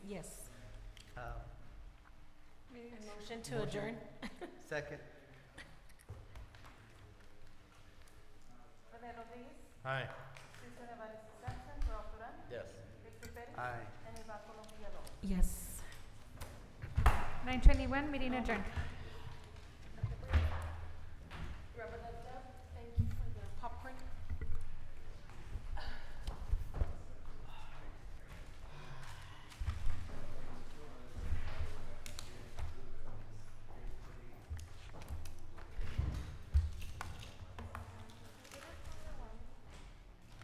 Yes. Um, motion to adjourn? Second. René Rodríguez, Aye. César Evaristo absent, Rob Duran, Yes. Victor Pérez, Aye. and Eva Colombia López. Yes. Nine twenty-one, meeting adjourned.